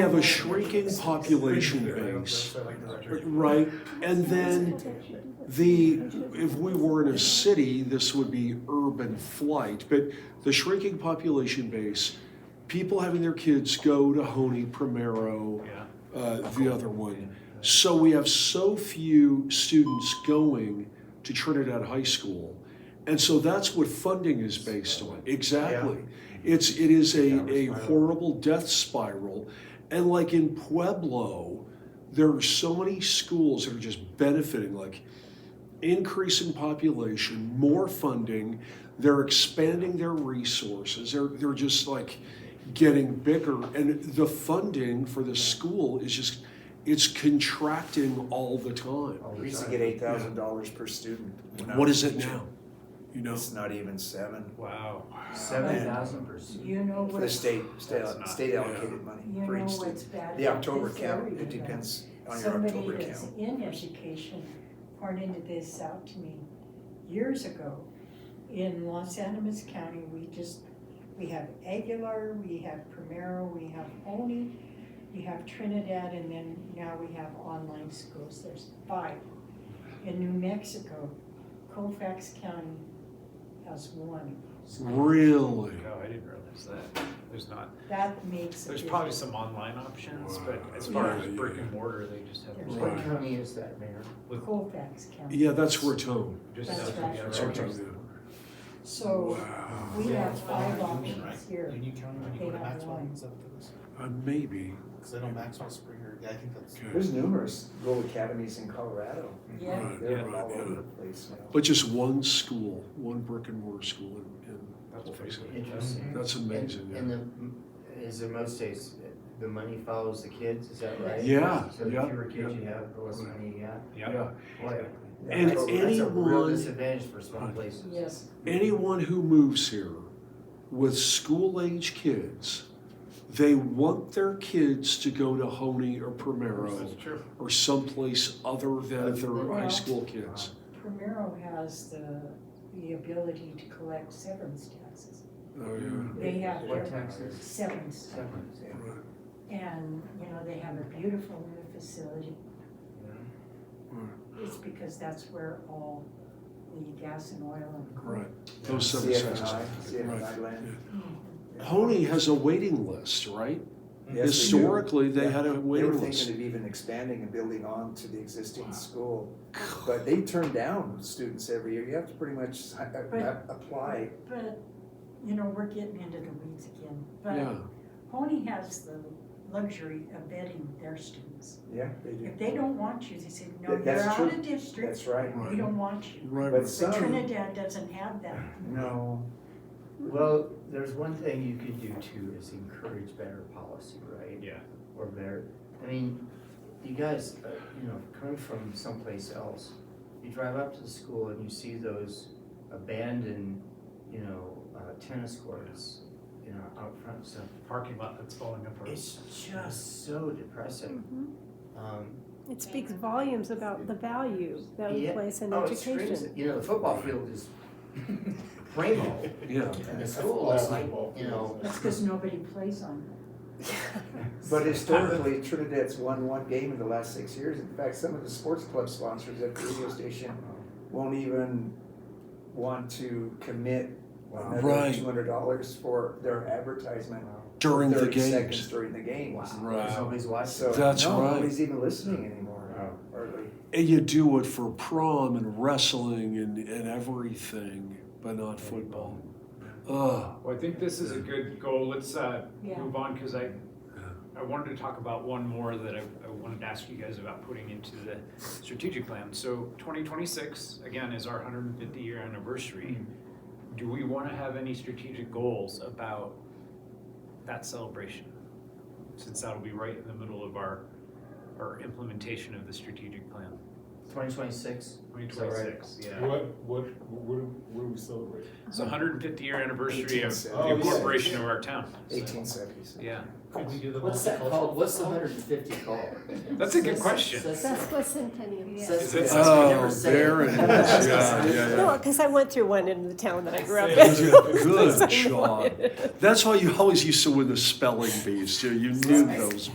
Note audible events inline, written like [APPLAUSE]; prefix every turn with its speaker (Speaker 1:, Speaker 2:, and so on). Speaker 1: We have a shrinking population base, right? And then the, if we were in a city, this would be urban flight, but the shrinking population base, people having their kids go to Honey, Primero, uh, the other one. So we have so few students going to Trinidad High School. And so that's what funding is based on, exactly. It's, it is a, a horrible death spiral. And like in Pueblo, there are so many schools that are just benefiting, like increase in population, more funding, they're expanding their resources, they're, they're just like getting bigger. And the funding for the school is just, it's contracting all the time.
Speaker 2: We used to get eight thousand dollars per student. when I
Speaker 1: What
Speaker 2: was
Speaker 1: is it
Speaker 2: teaching.
Speaker 1: now? You know?
Speaker 2: It's not even seven.
Speaker 3: Wow.
Speaker 4: Seven
Speaker 2: And-
Speaker 4: thousand percent.
Speaker 5: You know
Speaker 2: For
Speaker 5: what's,
Speaker 2: the state, state,
Speaker 3: That's not-
Speaker 2: state allocated money
Speaker 5: you
Speaker 2: for
Speaker 5: know
Speaker 2: each
Speaker 5: what's
Speaker 2: student.
Speaker 5: bad.
Speaker 2: The
Speaker 5: about
Speaker 2: October
Speaker 5: this
Speaker 2: count,
Speaker 5: area,
Speaker 2: it
Speaker 5: though?
Speaker 2: depends on your October
Speaker 5: Somebody that's
Speaker 2: count.
Speaker 5: in education pointed this out to me years ago. In Los Animas County, we just, we have Aguilar, we have Primero, we have Oni, we have Trinidad, and then now we have online schools, there's five. In New Mexico, Colfax County has one,
Speaker 1: Really?
Speaker 3: No, Oh, I didn't realize that. There's not,
Speaker 5: that makes a
Speaker 3: there's
Speaker 5: difference.
Speaker 3: probably some online options, but as far as brick and mortar, they just have.
Speaker 5: There's
Speaker 4: What
Speaker 1: Right.
Speaker 4: county is that, Mayor?
Speaker 5: Colfax County.
Speaker 1: Yeah, that's Raton.
Speaker 3: just
Speaker 5: That's
Speaker 3: have to
Speaker 5: right.
Speaker 3: be
Speaker 1: That's
Speaker 3: outright.
Speaker 1: Raton.
Speaker 5: So we
Speaker 4: Yeah,
Speaker 5: have
Speaker 4: it's
Speaker 5: five
Speaker 4: behind
Speaker 5: options
Speaker 4: Union, right?
Speaker 5: here.
Speaker 4: Union County, when you
Speaker 5: They
Speaker 4: go to
Speaker 5: have
Speaker 4: Maxwell,
Speaker 5: one.
Speaker 4: is that what it is?
Speaker 1: Uh, maybe.
Speaker 4: Cause I know Maxwell Springer, yeah, I think that's.
Speaker 1: Okay.
Speaker 2: There's numerous rural academies in Colorado.
Speaker 5: Yeah.
Speaker 1: Right,
Speaker 2: They're
Speaker 1: right,
Speaker 2: all over
Speaker 1: yeah.
Speaker 2: the place now.
Speaker 1: But just one school, one brick and mortar school in, in
Speaker 3: That's
Speaker 1: Colfax.
Speaker 4: Mm-hmm.
Speaker 3: pretty good.
Speaker 4: Interesting.
Speaker 1: That's amazing,
Speaker 6: And-
Speaker 1: yeah.
Speaker 6: And the, m- is in most states, the money follows the kids, is that right?
Speaker 1: Yeah,
Speaker 6: So the
Speaker 1: yeah,
Speaker 6: fewer kids
Speaker 1: yeah.
Speaker 6: you have, the less money you have.
Speaker 3: Yeah.
Speaker 6: Boy,
Speaker 1: And
Speaker 6: that's a- That's a real
Speaker 1: anyone-
Speaker 6: disadvantage for small places.
Speaker 5: Yes,
Speaker 1: anyone who moves here with school age kids, they want their kids to go to Honey or Primero
Speaker 3: That's true.
Speaker 1: or someplace other than their high
Speaker 5: Well-
Speaker 1: school kids.
Speaker 5: Primero has the, the ability to collect severance taxes.
Speaker 1: Oh,
Speaker 2: Mm-hmm.
Speaker 1: yeah.
Speaker 5: They have
Speaker 6: What
Speaker 5: their
Speaker 6: taxes?
Speaker 5: severance,
Speaker 6: Severance, yeah.
Speaker 5: and, you know, they have a beautiful new facility. It's because that's where all the gas and oil
Speaker 1: Right. Those seven
Speaker 2: CFNI,
Speaker 1: senses.
Speaker 2: CFNI land.
Speaker 1: Honey has a waiting list, right?
Speaker 2: Yes, they do.
Speaker 1: Historically, they had a
Speaker 2: They were
Speaker 1: waiting
Speaker 2: thinking
Speaker 1: list.
Speaker 2: of even expanding and building on to the existing school, but they turn down students every year. You have to pretty much uh, uh,
Speaker 5: But-
Speaker 2: apply.
Speaker 5: and, but, you know, we're getting into the weeds again.
Speaker 1: Yeah.
Speaker 5: But Pony has the luxury of vetting their students.
Speaker 2: Yeah, they do.
Speaker 5: If they don't want you, they say, no,
Speaker 2: That-
Speaker 5: you're
Speaker 2: that's
Speaker 5: out
Speaker 2: true.
Speaker 5: of district,
Speaker 2: That's right.
Speaker 5: we don't want you.
Speaker 1: Right,
Speaker 2: But
Speaker 1: right.
Speaker 5: But
Speaker 2: some,
Speaker 5: Trinidad doesn't have that.
Speaker 2: no,
Speaker 6: Well, there's one thing you could do too, is encourage better policy, right?
Speaker 3: Yeah.
Speaker 6: Or better, I mean, you guys, uh, you know, come from someplace else. You drive up to the school and you see those abandoned, you know, uh, tennis courts, you know, out front and stuff.
Speaker 3: Parking lot that's falling apart.
Speaker 6: It's just so depressing. Um,
Speaker 7: It speaks volumes about the value that we
Speaker 6: Yeah.
Speaker 7: place in
Speaker 6: oh, it screams,
Speaker 7: education.
Speaker 6: you know, the football field is [LAUGHS] primo,
Speaker 1: Yeah.
Speaker 6: and the school looks like, you know, [LAUGHS]
Speaker 5: That's because nobody plays on it. [LAUGHS]
Speaker 2: but historically Trinidad's won one game in the last six years. In fact, some of the sports club sponsors at the radio station won't even want to commit another
Speaker 1: Right.
Speaker 2: two hundred dollars for their advertisement.
Speaker 1: During the
Speaker 2: 30 seconds
Speaker 1: games.
Speaker 2: During the games.
Speaker 6: there's
Speaker 1: Right.
Speaker 6: always watching.
Speaker 2: So,
Speaker 1: That's
Speaker 2: no,
Speaker 1: right.
Speaker 2: nobody's even listening anymore, are they?
Speaker 1: And you do it for prom and wrestling and, and everything, but not football. Ugh.
Speaker 3: Well, I think this is a good goal. Let's uh,
Speaker 5: Yeah.
Speaker 3: move on because I, I wanted to talk about one more that I, I wanted to ask you guys about putting into the strategic plan. So 2026, again, is our 150 year anniversary. Do we want to have any strategic goals about that celebration? Since that'll be right in the middle of our, our implementation of the strategic plan.
Speaker 6: Twenty twenty-six.
Speaker 3: 2026, yeah.
Speaker 8: What, what, what, do- what do we celebrate?
Speaker 3: It's the 150 year anniversary of the
Speaker 2: 1876.
Speaker 3: incorporation of our town. So,
Speaker 2: Eighteen seventies.
Speaker 3: Yeah,
Speaker 4: Could we do the
Speaker 6: What's that called?
Speaker 4: multicultural?
Speaker 6: What's the hundred and fifty called?
Speaker 3: that's a good question.
Speaker 7: Sesquicentennial.
Speaker 3: Is it-
Speaker 1: Oh, there it is. Yeah, yeah, yeah.
Speaker 7: No, because I went through one in the town that I grew up
Speaker 1: Yeah,
Speaker 7: in. [LAUGHS]
Speaker 1: Good
Speaker 7: So I know
Speaker 1: job.
Speaker 7: it.
Speaker 1: That's why you always used to win the spelling bees, too. You knew those